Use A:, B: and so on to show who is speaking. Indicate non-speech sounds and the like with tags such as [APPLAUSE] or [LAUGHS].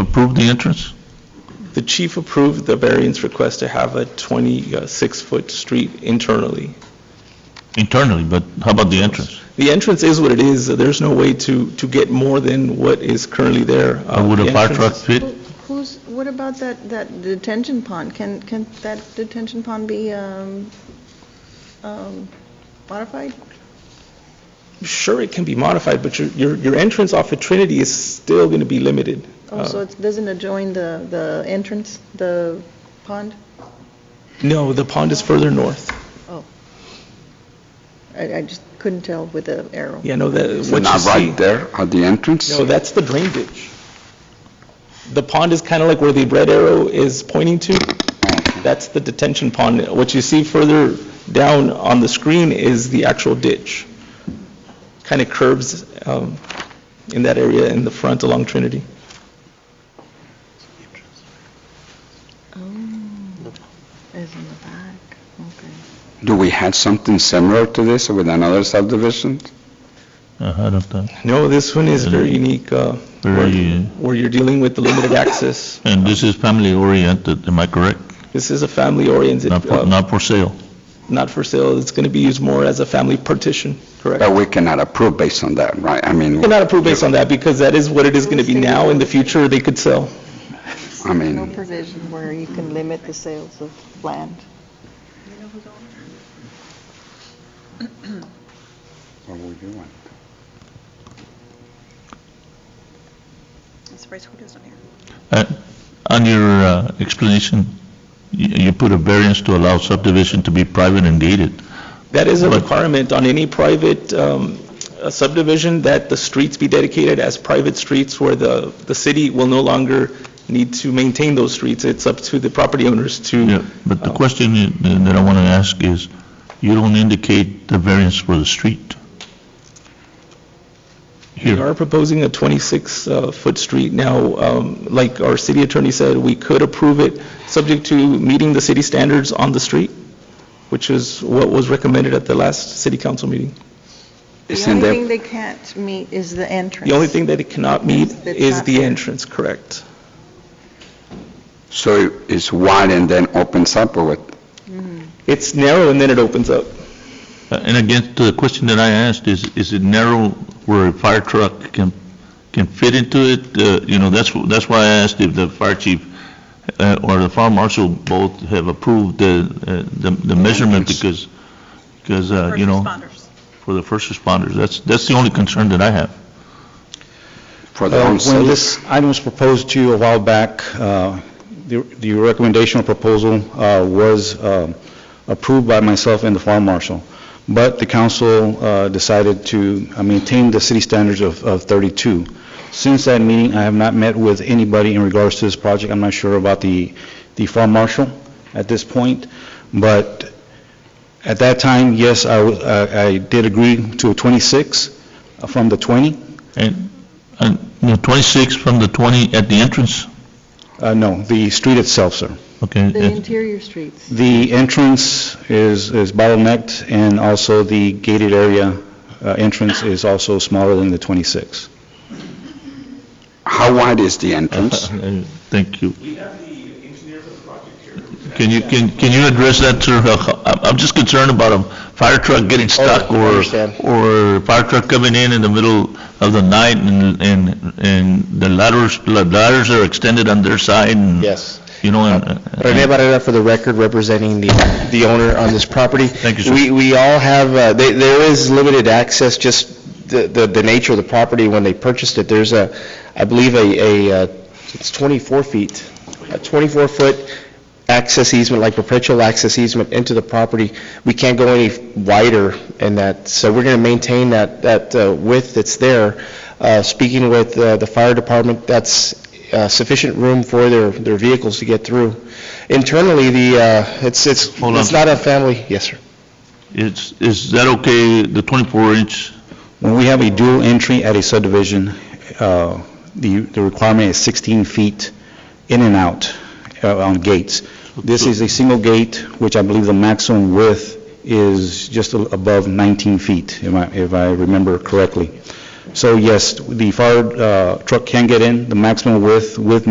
A: approve the entrance?
B: The chief approved the variance request to have a 26-foot street internally.
A: Internally, but how about the entrance?
B: The entrance is what it is. There's no way to, to get more than what is currently there. Uh,
A: How would
B: the
A: a fire
B: entrance
A: truck
B: is-
A: fit?
C: Who's, what about that, that detention pond? Can, can that detention pond be um, um, modified?
B: Sure, it can be modified, but your, your, your entrance off of Trinity is still going to be limited.
C: Oh, so
B: Uh,
C: it doesn't adjoin the, the entrance, the pond?
B: No, the pond is further north.
C: I, I just couldn't tell with the arrow.
B: Yeah, no, that,
D: Is it
B: what you
D: not
B: see.
D: right there at the entrance?
B: No, that's the drain ditch. The pond is kind of like where the red arrow is pointing to. That's the detention pond. What you see further down on the screen is the actual ditch. Kind of curves um, in that area in the front along Trinity.
C: Oh, it's in the back, okay.
D: Do we have something similar to this with another subdivision?
A: Ahead of that.
B: No, this one is very
A: Mm-hmm.
B: unique, uh,
A: Very,
B: where you're dealing with the limited access.
A: and this is family oriented, am I correct?
B: This is a family-oriented,
A: Not for,
B: uh,
A: not for sale.
B: not for sale. It's going to be used more as a family partition, correct?
D: But we cannot approve based on that, right? I mean,
B: Cannot approve based on that because that is what it is going to be now. In the future, they could sell.
C: No
D: I mean,
C: provision where you can limit the sales of land.
D: what would you want?
E: I'm surprised Julio's not here.
A: Uh, On your uh, explanation, you you put a variance to allow subdivision to be private and gated.
B: That is a
A: Right.
B: requirement on any private um, uh, subdivision, that the streets be dedicated as private streets where the, the city will no longer need to maintain those streets. It's up to the property owners to,
A: But the
B: Oh.
A: question i- that I want to ask is, you don't indicate the variance for the street.
B: we
A: Here,
B: are proposing a 26-foot street. Now, um, like our city attorney said, we could approve it, subject to meeting the city standards on the street, which is what was recommended at the last city council meeting.
C: The
D: Isn't
C: only
D: there-
C: thing they can't meet is the entrance.
B: The only thing that it cannot meet
C: That's
B: is
C: not
B: the
C: fair.
B: entrance, correct?
D: So it's wide and then opens up or what?
B: It's narrow and then it opens up.
A: Uh, and again, the question that I asked is, is it narrow where a fire truck can, can fit into it? Uh, You know, that's, wh- that's why I asked if the fire chief uh, or the fire marshal both have approved the, uh, the the measurement because, because, uh,
E: First
A: you know,
E: responders.
A: for the first responders. That's, that's the only concern that I have.
D: For the
F: Uh,
D: whole
F: When
D: city?
F: this item was proposed to you a while back, uh, the the recommendation or proposal uh, was um, approved by myself and the farm marshal, but the council uh, decided to uh, maintain the city standards of of 32. Since that meeting, I have not met with anybody in regards to this project. I'm not sure about the the farm marshal at this point, but at that time, yes, I was- I I did agree to a 26 from the 20.
A: And, and you know, 26 from the 20 at the entrance?
F: Uh, No, the street itself, sir.
A: Okay.
C: The
A: it-
C: interior streets.
F: The entrance is is bottlenecked, and also the gated area uh, entrance is also smaller than the 26.
D: How wide is the
A: [LAUGHS]
D: entrance?
A: Uh, Thank you. Can you, can, can you address that, sir? [LAUGHS] Uh, I'm I'm just concerned about a fire truck getting
G: Oh,
A: stuck or,
F: understand.
A: or fire truck coming in in the middle of the night and, and, and the ladders, the ladders are extended on their side and.
G: Yes. Uh,
A: You know, and.
G: Rene Barrera, for the record, representing the the owner on this property.
A: Thank you, sir.
G: We we all have, uh, they- there is limited access, just the- the the nature of the property when they purchased it. There's a, I believe, a, a, uh, it's 24 feet, a 24-foot access easement, like perpetual access easement into the property. We can't go any wider in that, so we're going to maintain that that uh, width that's there. Uh, Speaking with uh, the fire department, that's uh, sufficient room for their their vehicles to get through. Internally, the, uh, it's it's
A: Hold on.
G: it's not a family, yes, sir.
A: Is, is that okay, the 24 inch?
F: When we have a dual entry at a subdivision, uh, the the requirement is 16 feet in and out uh, on gates. This is a single gate, which I believe the maximum width is just a- above 19 feet, if I- if I remember correctly. So yes, the fire uh, truck can get in, the maximum width with